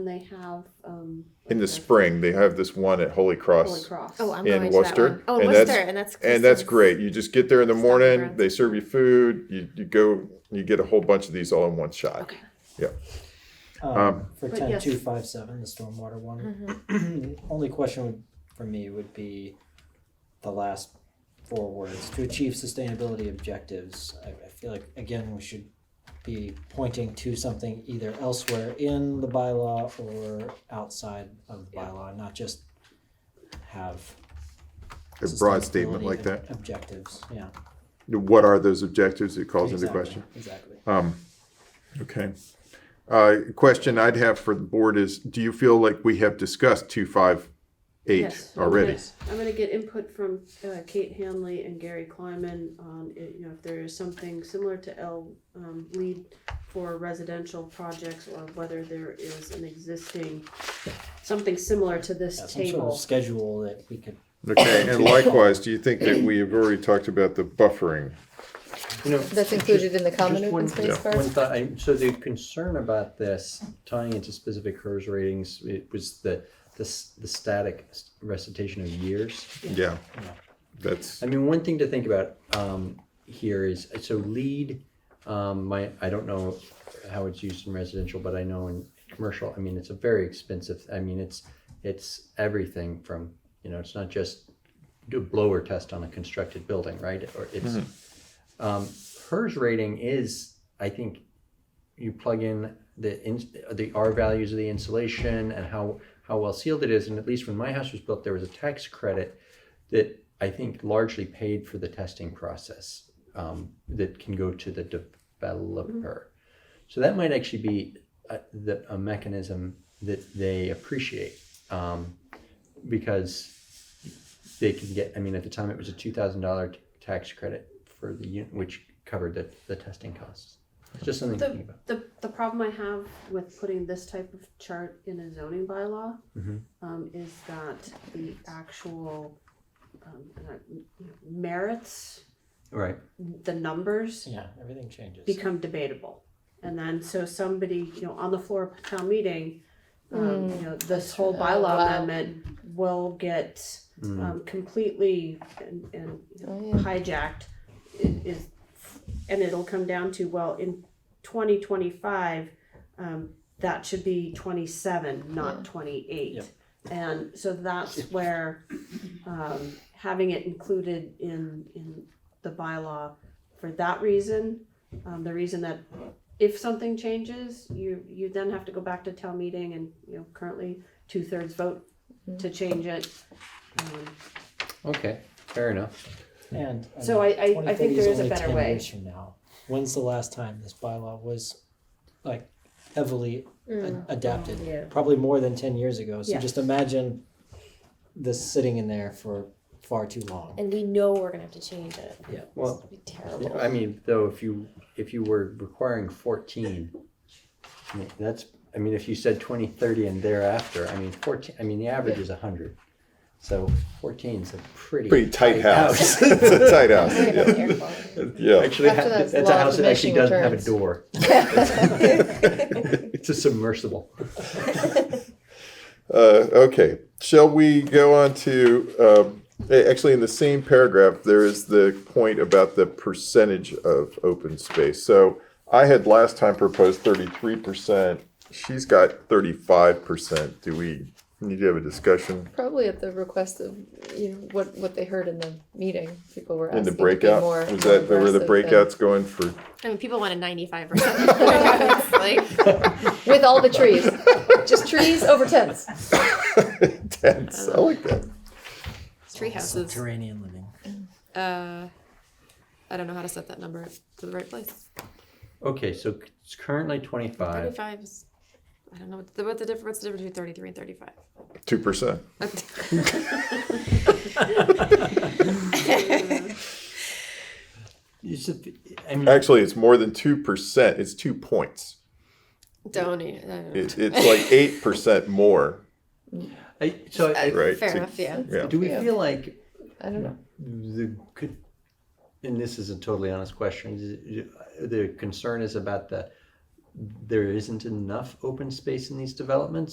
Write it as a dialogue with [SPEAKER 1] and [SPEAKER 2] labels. [SPEAKER 1] And they have um,
[SPEAKER 2] in the
[SPEAKER 1] like a-
[SPEAKER 2] spring they have this one at holy cross,
[SPEAKER 1] Holy Cross.
[SPEAKER 3] Oh, I'm
[SPEAKER 2] In
[SPEAKER 3] going
[SPEAKER 2] Worcester,
[SPEAKER 3] to that one. Oh, in
[SPEAKER 2] and that's-
[SPEAKER 3] Worcester, and that's
[SPEAKER 2] and that's
[SPEAKER 3] Kristen's.
[SPEAKER 2] great you just get there in the
[SPEAKER 3] Stop
[SPEAKER 2] morning
[SPEAKER 3] around.
[SPEAKER 2] they serve you food you, you go you get a whole bunch of these all in one shot
[SPEAKER 1] Okay.
[SPEAKER 4] Um,
[SPEAKER 2] Um,
[SPEAKER 4] for
[SPEAKER 1] But
[SPEAKER 4] ten
[SPEAKER 1] yes. Mm-hmm.
[SPEAKER 4] two five seven, the stormwater one.
[SPEAKER 3] Mhm.
[SPEAKER 4] Only question would, for me would be the last four words to achieve sustainability objectives. I, I feel like again we should be pointing to something either elsewhere in the bylaw or outside of the bylaw, not just have
[SPEAKER 2] a broad statement
[SPEAKER 4] sustainability
[SPEAKER 2] like that
[SPEAKER 4] ob- Objectives, yeah.
[SPEAKER 2] what are those objectives it calls into
[SPEAKER 4] exactly,
[SPEAKER 2] question
[SPEAKER 4] Exactly.
[SPEAKER 2] Um, okay. Uh, question I'd have for the board is, do you feel like we have discussed two five eight
[SPEAKER 1] Yes, I'm
[SPEAKER 2] already?
[SPEAKER 1] gonna- I'm gonna get input from uh, Kate Hanley and Gary Kleiman on, it, you know, if there is something similar to L um, lead for residential projects or whether there is an existing, something similar to
[SPEAKER 4] Yeah,
[SPEAKER 1] this
[SPEAKER 4] some sort of
[SPEAKER 1] table.
[SPEAKER 4] schedule that we could
[SPEAKER 2] Okay, and likewise, do you think that we have already talked about the buffering?
[SPEAKER 5] You know,
[SPEAKER 6] That's included in the common
[SPEAKER 5] just
[SPEAKER 6] open
[SPEAKER 5] one-
[SPEAKER 6] space
[SPEAKER 2] yeah.
[SPEAKER 6] part?
[SPEAKER 5] one thought, I- so the concern about this tying into specific HERS ratings, it was the, the, s- the static recitation of years.
[SPEAKER 2] Yeah, that's,
[SPEAKER 5] I mean, one thing to think about um, here is so lead. Um, my I don't know how it's used in residential, but I know in commercial. I mean, it's a very expensive. I mean, it's it's everything from you know, it's not just do a blower test on a constructed building, right? Or it's um, hers rating is I think you plug in the in, the R values of the insulation and how how well sealed it is, and at least when my house was built, there was a tax credit that I think largely paid for the testing process um, that can go to the developer. So that might actually be a, the, a mechanism that they appreciate um, because they can get. I mean, at the time it was a two thousand dollar tax credit for the unit, which covered the, the testing costs. It's just something to think about.
[SPEAKER 1] The, the problem I have with putting this type of chart in a zoning bylaw
[SPEAKER 5] Mhm.
[SPEAKER 1] um, is that the actual um, and I- you know, merits,
[SPEAKER 5] Right.
[SPEAKER 1] the numbers
[SPEAKER 4] Yeah, everything changes.
[SPEAKER 1] become debatable. And then, so somebody, you know, on the floor of town meeting, um, you know, this whole
[SPEAKER 6] Oh,
[SPEAKER 1] bylaw
[SPEAKER 6] wow.
[SPEAKER 1] amendment will get
[SPEAKER 5] Mm.
[SPEAKER 1] um, completely and, and
[SPEAKER 6] Oh, yeah.
[SPEAKER 1] hijacked. It is, and it'll come down to well, in twenty twenty five, um, that should be twenty seven, not twenty eight.
[SPEAKER 4] Yep.
[SPEAKER 1] And so that's where um, having it included in in the bylaw for that reason, um, the reason that if something changes, you you then have to go back to town meeting and you know currently two thirds vote to change it. Um,
[SPEAKER 5] Okay. Fair enough.
[SPEAKER 4] And
[SPEAKER 1] So I-
[SPEAKER 4] mean,
[SPEAKER 1] I- I think
[SPEAKER 4] 2030
[SPEAKER 1] there is a
[SPEAKER 4] only
[SPEAKER 1] better
[SPEAKER 4] 10
[SPEAKER 1] way.
[SPEAKER 4] years from now. When's the last time this bylaw was like heavily a- adapted?
[SPEAKER 1] yeah.
[SPEAKER 4] Probably more than ten years ago. So
[SPEAKER 1] Mm. Yeah.
[SPEAKER 4] just imagine this sitting in there for far too long.
[SPEAKER 3] And we know we're gonna have to change it.
[SPEAKER 4] Yeah.
[SPEAKER 5] Well,
[SPEAKER 3] It'll be
[SPEAKER 5] Yeah,
[SPEAKER 3] terrible.
[SPEAKER 5] I mean, though, if you, if you were requiring fourteen, I mean, that's, I mean, if you said twenty, thirty and thereafter, I mean, fourteen, I mean, the average is a hundred. So fourteen's a pretty.
[SPEAKER 2] pretty tight house. It's a tight house,
[SPEAKER 3] Worry about
[SPEAKER 2] yeah,
[SPEAKER 3] the air quality.
[SPEAKER 2] yeah.
[SPEAKER 5] Actually,
[SPEAKER 6] After
[SPEAKER 5] ha-
[SPEAKER 6] that's
[SPEAKER 5] that's
[SPEAKER 6] law
[SPEAKER 5] a
[SPEAKER 6] of
[SPEAKER 5] house that actually
[SPEAKER 6] diminishing
[SPEAKER 5] doesn't have a
[SPEAKER 6] returns.
[SPEAKER 5] door. It's a submersible.
[SPEAKER 2] Uh, okay, shall we go on to, um, a- actually, in the same paragraph, there is the point about the percentage of open space. So I had last time proposed thirty-three percent, she's got thirty-five percent. Do we need to have a discussion?
[SPEAKER 6] Probably at the request of, you know, what, what they heard in the meeting, people were
[SPEAKER 2] In
[SPEAKER 6] asking
[SPEAKER 2] the
[SPEAKER 6] to be
[SPEAKER 2] breakout,
[SPEAKER 6] more-
[SPEAKER 2] was
[SPEAKER 6] more
[SPEAKER 2] that the- where the
[SPEAKER 6] aggressive and-
[SPEAKER 2] breakout's going for?
[SPEAKER 3] I mean, people want a ninety-five percent. Like,
[SPEAKER 6] With all the trees, just trees over tents.
[SPEAKER 2] Tents, I like that.
[SPEAKER 3] tree houses.
[SPEAKER 4] Subterranean living.
[SPEAKER 3] Uh, I don't know how to set that number to the right place.
[SPEAKER 5] Okay, so c- it's currently twenty-five.
[SPEAKER 3] Thirty-five is, I don't know, what the, what the difference, what's the difference between thirty-three and thirty-five?
[SPEAKER 2] Two percent.
[SPEAKER 5] It's a, I mean,
[SPEAKER 2] Actually, it's more than two percent, it's two points.
[SPEAKER 3] Don't eat, I don't know.
[SPEAKER 2] It, it's like eight percent more,
[SPEAKER 5] I, so, I-
[SPEAKER 2] right?
[SPEAKER 3] Fair
[SPEAKER 2] to-
[SPEAKER 3] enough, yeah.
[SPEAKER 2] Yeah.
[SPEAKER 5] do we
[SPEAKER 6] Yeah.
[SPEAKER 5] feel like
[SPEAKER 6] I don't know.
[SPEAKER 5] the could and this is a totally honest question is- the concern is about the there isn't enough open space in these developments